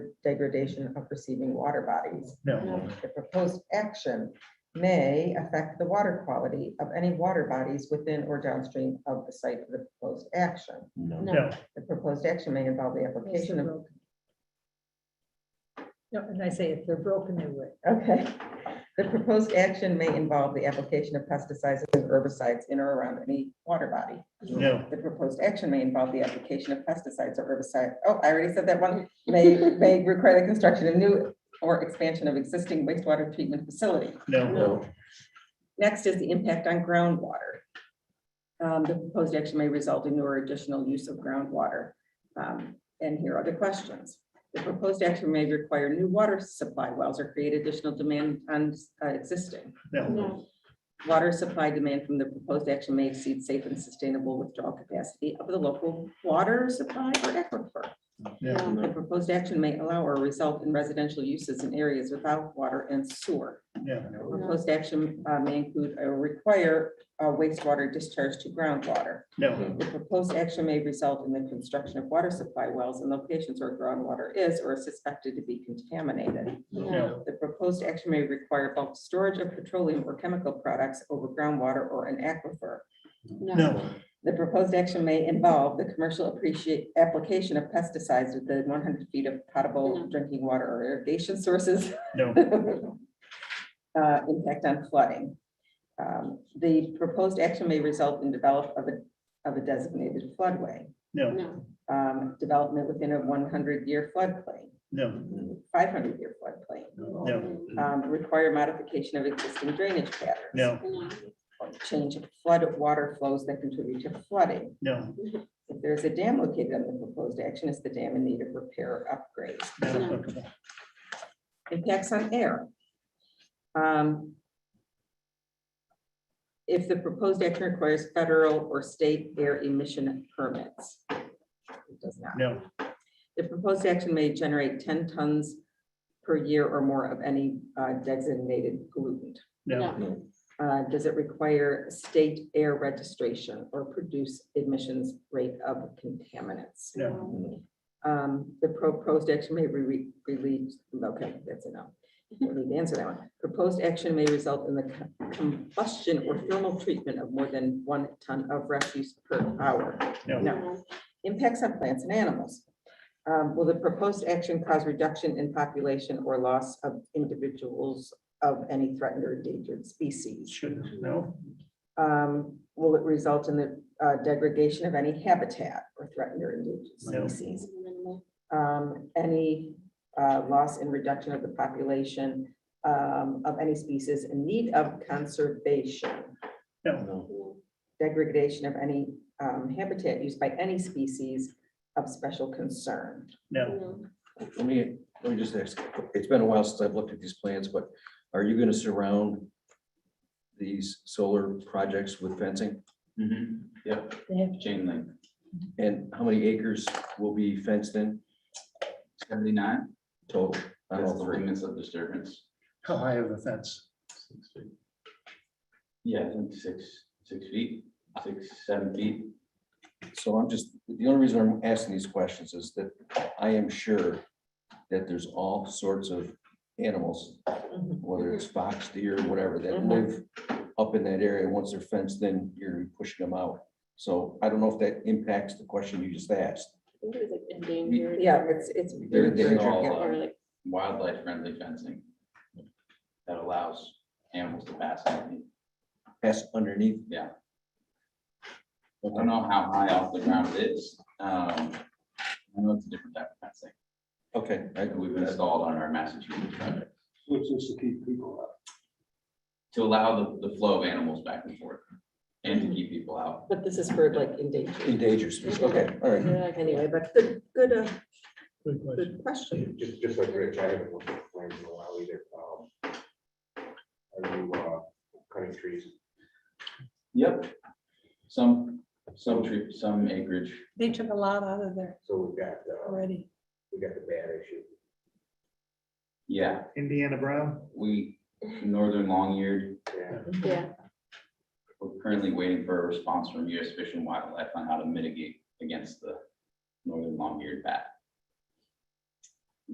degradation of receiving water bodies. No, The proposed action may affect the water quality of any water bodies within or downstream of the site of the proposed action. No. no, The proposed action may involve the application of, No, and I say if they're broken, they would. okay. The proposed action may involve the application of pesticides and herbicides in or around any water body. no, The proposed action may involve the application of pesticides or herbicide. Oh, I already said that one. May, may require the construction of new or expansion of existing wastewater treatment facility. no, No. Next is the impact on groundwater. Um, The proposed action may result in or additional use of groundwater. Um, And here are the questions. The proposed action may require new water supply wells or create additional demand on uh, existing. no, Water supply demand from the proposed action may exceed safe and sustainable withdrawal capacity of the local water supply or aquifer. no, The proposed action may allow or result in residential uses in areas without water and sewer. no, Proposed action uh, may include or require uh, wastewater discharge to groundwater. no, The proposed action may result in the construction of water supply wells in locations where groundwater is or is suspected to be contaminated. no, The proposed action may require bulk storage of petroleum or chemical products over groundwater or an aquifer. no, The proposed action may involve the commercial appreciate, application of pesticides within one hundred feet of potable drinking water or irrigation sources. no, Uh, impact on flooding. Um, The proposed action may result in develop of a, of a designated floodway, no, um, development within a one hundred year floodplain, no, five hundred year floodplain. no, um, Require modification of existing drainage patterns. no, Change of flood water flows that contribute to flooding. no, If there's a dam located on the proposed action, is the dam in need of repair or upgrade? not applicable. impacts on air. Um, If the proposed action requires federal or state air emission permits. It does not. no, The proposed action may generate ten tons per year or more of any uh, designated pollutant. no, Uh, Does it require state air registration or produce emissions rate of contaminants? no, Um, the proposed action may be relieved, okay, that's enough. We don't need to answer that one. Proposed action may result in the co- combustion or thermal treatment of more than one ton of refuse per hour. no, No. Impacts on plants and animals. Um, will the proposed action cause reduction in population or loss of individuals of any threatened or endangered species? shouldn't, no, Um, will it result in the uh, degradation of any habitat or threatened or No. endangered species? um, any uh, loss and reduction of the population um, of any species in need of conservation, no, degradation of any um, habitat used by any species of special concern. no, Let me, let me just ask, it's been a while since I've looked at these plans, but are you gonna surround these solar projects with fencing? Mhm. Yep, They have chain link, And how many acres will be fenced in seventy-nine, total? on that's all the three? limits of disturbance. how high of a fence? Yeah, I think six, six feet, six, seven feet. So I'm just, the only reason I'm asking these questions is that I am sure that there's all sorts of animals, whether it's fox, deer, whatever, that Mhm. live up in that area. Once they're fenced, then you're pushing them out. So I don't know if that impacts the question you just asked. think it was like endangered. Yeah, or- it's, it's. They're They're- they're endangered, all, yeah. uh, Or like, wildlife friendly fencing that allows animals to pass. underneath. Pass underneath. Yeah. I Okay. don't know how high off the ground it is. Um, I know it's a different type of fencing. Okay, I- that we've installed on our Massachusetts project Which is to keep people out. to allow the, the flow of animals back and forth and to keep people out. But this is for like endangered. endangered species. Okay, all right. they're like- Anyway, but good, good, uh, Good question. good question. Just, just like Rich, I haven't looked at plans in a while either. Um, Are you, uh, cutting trees? Yep. Some, some tree, some acreage. They took a lot out of there So we've got, uh, already. we got the bad issue. Yeah, Indiana Brown? we, northern long-eared, Yeah, Yeah, we're currently waiting for a response from US Fish and Wildlife on how to mitigate against the northern long-eared bat.